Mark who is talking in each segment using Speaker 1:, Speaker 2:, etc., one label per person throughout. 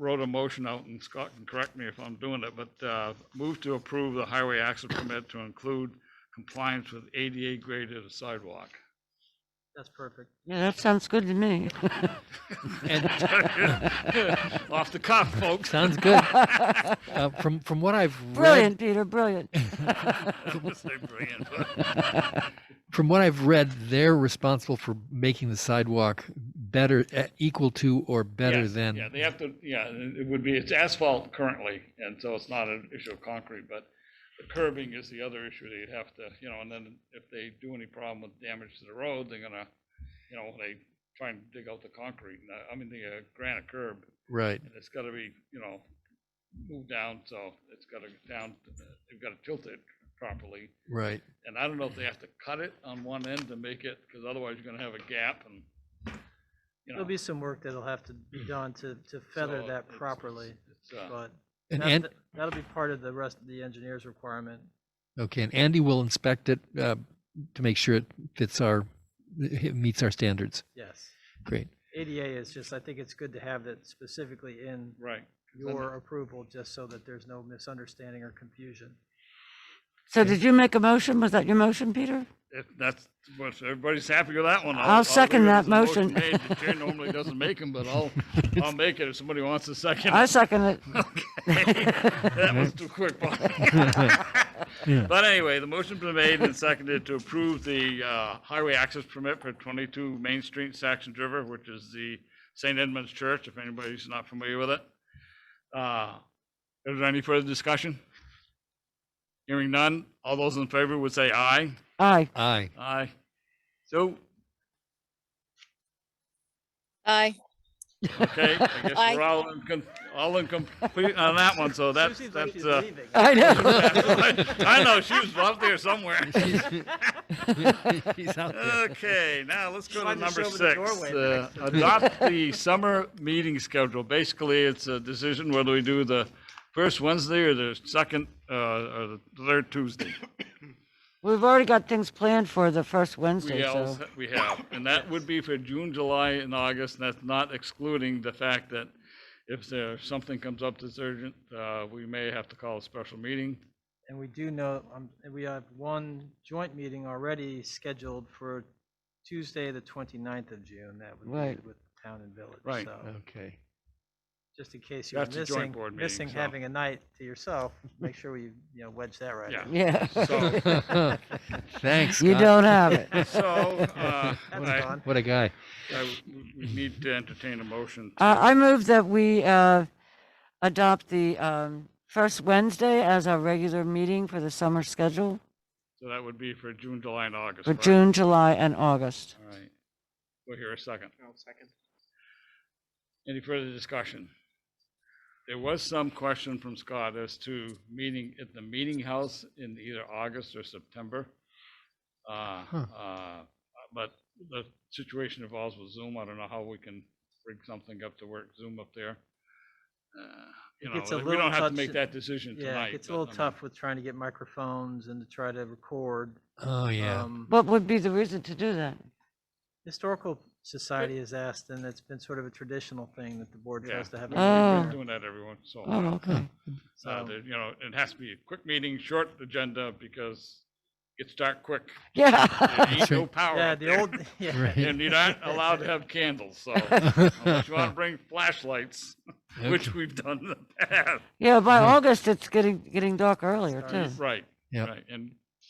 Speaker 1: wrote a motion out, and Scott can correct me if I'm doing it, but uh, move to approve the highway access permit to include compliance with ADA graded sidewalk.
Speaker 2: That's perfect.
Speaker 3: Yeah, that sounds good to me.
Speaker 1: Off the cuff, folks.
Speaker 4: Sounds good. Uh, From, from what I've read,
Speaker 3: Brilliant, Peter, brilliant.
Speaker 1: I would say brilliant, but-
Speaker 4: from what I've read, they're responsible for making the sidewalk better, e- equal to or better
Speaker 1: Yes,
Speaker 4: than.
Speaker 1: Yeah, they have to, yeah, it it would be, it's asphalt currently, and so it's not an issue of concrete, but the curbing is the other issue they'd have to, you know, and then if they do any problem with damage to the road, they're gonna, you know, they try and dig out the concrete, and, uh, I mean, the uh, granite curb,
Speaker 4: Right.
Speaker 1: and it's gotta be, you know, moved down, so it's gotta get down, uh, they've gotta tilt it properly.
Speaker 4: Right.
Speaker 1: And I don't know if they have to cut it on one end to make it, because otherwise you're gonna have a gap and, you know. Mm.
Speaker 2: There'll be some work that'll have to be done to, to feather
Speaker 1: so
Speaker 2: that
Speaker 1: it's-
Speaker 2: properly,
Speaker 1: it's, uh,
Speaker 2: but
Speaker 4: And,
Speaker 2: that-
Speaker 4: and,
Speaker 2: that- that'll be part of the rest of the engineer's requirement.
Speaker 4: okay, and Andy will inspect it uh, to make sure it fits our, it meets our standards.
Speaker 2: Yes.
Speaker 4: Great.
Speaker 2: ADA is just, I think it's good to have that specifically in
Speaker 1: Right. 'cause then
Speaker 2: your approval, just so that there's no misunderstanding or confusion.
Speaker 3: So did you make a motion? Was that your motion, Peter?
Speaker 1: If that's, what everybody's happy with that one.
Speaker 3: I'll
Speaker 1: leave
Speaker 3: second
Speaker 1: it
Speaker 3: that
Speaker 1: as a
Speaker 3: motion.
Speaker 1: made. The Chair normally doesn't make them, but I'll, I'll make it if somebody wants to second.
Speaker 3: I
Speaker 1: it.
Speaker 3: second it.
Speaker 1: That was too quick, Bob. But anyway, the motion's been made and seconded to approve the uh, highway access permit for 22 Main Street, Saxon River, which is the St. Edmund's Church, if anybody's not familiar with it. Uh, Is there any further discussion? Hearing none, all those in favor would say aye.
Speaker 3: Aye.
Speaker 4: Aye.
Speaker 1: Aye. So,
Speaker 5: Aye.
Speaker 1: okay, I guess
Speaker 5: Aye.
Speaker 1: we're all in, con- all in complete on that one, so that's,
Speaker 2: Susie's like
Speaker 1: that's,
Speaker 2: she's
Speaker 1: uh.
Speaker 2: leaving.
Speaker 3: I know.
Speaker 1: I know, she was up there somewhere.
Speaker 4: He's out there.
Speaker 1: Okay, now let's go to
Speaker 2: Slide this
Speaker 1: number
Speaker 2: over the
Speaker 1: six.
Speaker 2: doorway
Speaker 1: uh,
Speaker 2: next
Speaker 1: Adopt the summer meeting schedule. Basically, it's a decision whether we do the first Wednesday or the second, uh, or the third Tuesday.
Speaker 3: We've already got things planned for the first Wednesday,
Speaker 1: We
Speaker 3: so.
Speaker 1: also- we have, and that would be for June, July, and August, and that's not excluding the fact that if there, something comes up that's urgent, uh, we may have to call a special meeting.
Speaker 2: And we do know, um, and we have one joint meeting already scheduled for Tuesday, the 29th of June. That would
Speaker 3: Right.
Speaker 2: be with town and village.
Speaker 1: Right.
Speaker 2: So
Speaker 4: Okay.
Speaker 2: just in case you're
Speaker 1: That's a joint
Speaker 2: missing,
Speaker 1: board meeting,
Speaker 2: missing
Speaker 1: so.
Speaker 2: having a night to yourself, make sure we, you know, wedge that right.
Speaker 1: Yeah.
Speaker 2: in.
Speaker 3: Yeah,
Speaker 1: So,
Speaker 4: Thanks.
Speaker 3: you
Speaker 4: Scott.
Speaker 3: don't have it.
Speaker 1: so, uh,
Speaker 2: That's
Speaker 1: I-
Speaker 2: gone.
Speaker 4: What a guy.
Speaker 1: I- we need to entertain a motion.
Speaker 3: Uh, I move that we uh, adopt the um, first Wednesday as our regular meeting for the summer schedule
Speaker 1: So that would be for June, July, and August.
Speaker 3: for
Speaker 1: right?
Speaker 3: June, July, and August.
Speaker 1: All right. We'll hear a second.
Speaker 2: second.
Speaker 1: Any further discussion? There was some question from Scott as to meeting at the meeting house in either August or September. Uh,
Speaker 4: Huh.
Speaker 1: uh, But the situation involves with Zoom. I don't know how we can bring something up to work Zoom up there. Uh, You
Speaker 2: It
Speaker 1: know,
Speaker 2: gets a
Speaker 1: we
Speaker 2: little
Speaker 1: don't have to
Speaker 2: touch-
Speaker 1: make that decision
Speaker 2: Yeah,
Speaker 1: tonight.
Speaker 2: it's a
Speaker 1: but,
Speaker 2: little
Speaker 1: I mean,
Speaker 2: tough with trying to get microphones and to try to record.
Speaker 4: Oh, yeah.
Speaker 2: Um,
Speaker 3: What would be the reason to do that?
Speaker 2: Historical Society has asked, and it's been sort of a traditional thing that the board
Speaker 1: Yeah,
Speaker 2: tries to have.
Speaker 1: we-
Speaker 2: a
Speaker 1: we've been
Speaker 2: meeting
Speaker 3: Oh.
Speaker 2: there.
Speaker 1: doing that every once in a
Speaker 3: Oh,
Speaker 1: while.
Speaker 3: okay.
Speaker 1: Uh,
Speaker 2: So-
Speaker 1: there- You know, it has to be a quick meeting, short agenda, because it's dark quick. There
Speaker 3: Yeah.
Speaker 1: ain't no power
Speaker 2: Yeah,
Speaker 1: up
Speaker 2: the
Speaker 1: there.
Speaker 2: old, yeah.
Speaker 4: Right.
Speaker 1: And you're not allowed to have candles, so unless you want to bring flashlights, which we've done in the past.
Speaker 3: Yeah, by August, it's getting, getting dark earlier
Speaker 2: Sorry.
Speaker 3: too.
Speaker 1: Right,
Speaker 4: Yep.
Speaker 1: right, and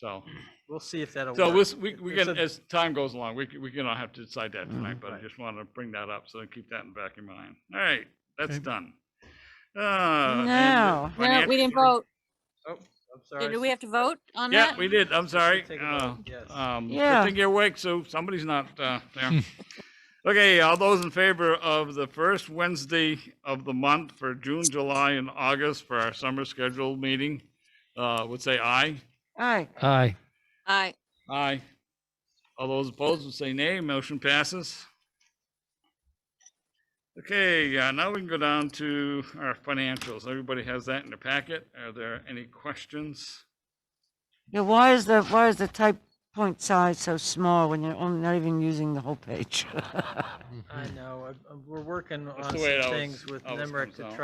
Speaker 1: so,
Speaker 2: We'll see if that'll work.
Speaker 1: so this- we, we
Speaker 2: It's
Speaker 1: can,
Speaker 2: a-
Speaker 1: as time goes along, we, c- we can have to decide that tonight, but I
Speaker 2: Right.
Speaker 1: just want to bring that up, so keep that in back of your mind. All right, that's
Speaker 4: Okay.
Speaker 1: done. Uh, and the
Speaker 3: Now.
Speaker 5: No,
Speaker 1: financial
Speaker 5: we didn't
Speaker 1: report-
Speaker 5: vote.
Speaker 2: Oh, I'm sorry.
Speaker 5: Did we have to vote on
Speaker 1: Yeah,
Speaker 5: that?
Speaker 1: we did, I'm
Speaker 2: should
Speaker 1: sorry.
Speaker 2: take a
Speaker 1: Uh,
Speaker 2: vote, yes.
Speaker 1: Um, good
Speaker 3: Yeah.
Speaker 1: thing you're awake, so somebody's not, uh, there. Okay, all those in favor of the first Wednesday of the month for June, July, and August for our summer scheduled meeting, uh, would say aye.
Speaker 3: All right.
Speaker 4: Aye.
Speaker 5: Aye.
Speaker 1: Aye. All those opposed would say nay. Motion passes. Okay, uh, now we can go down to our financials. Everybody has that in their packet. Are there any questions?
Speaker 3: Yeah, why is the, why is the type point size so small when you're only not even using the whole page?
Speaker 2: I know, I- I- we're working
Speaker 1: That's
Speaker 2: on
Speaker 1: the
Speaker 2: some
Speaker 1: way it always-
Speaker 2: things with
Speaker 1: always
Speaker 2: Nemrick
Speaker 1: comes
Speaker 2: to
Speaker 1: out.
Speaker 2: try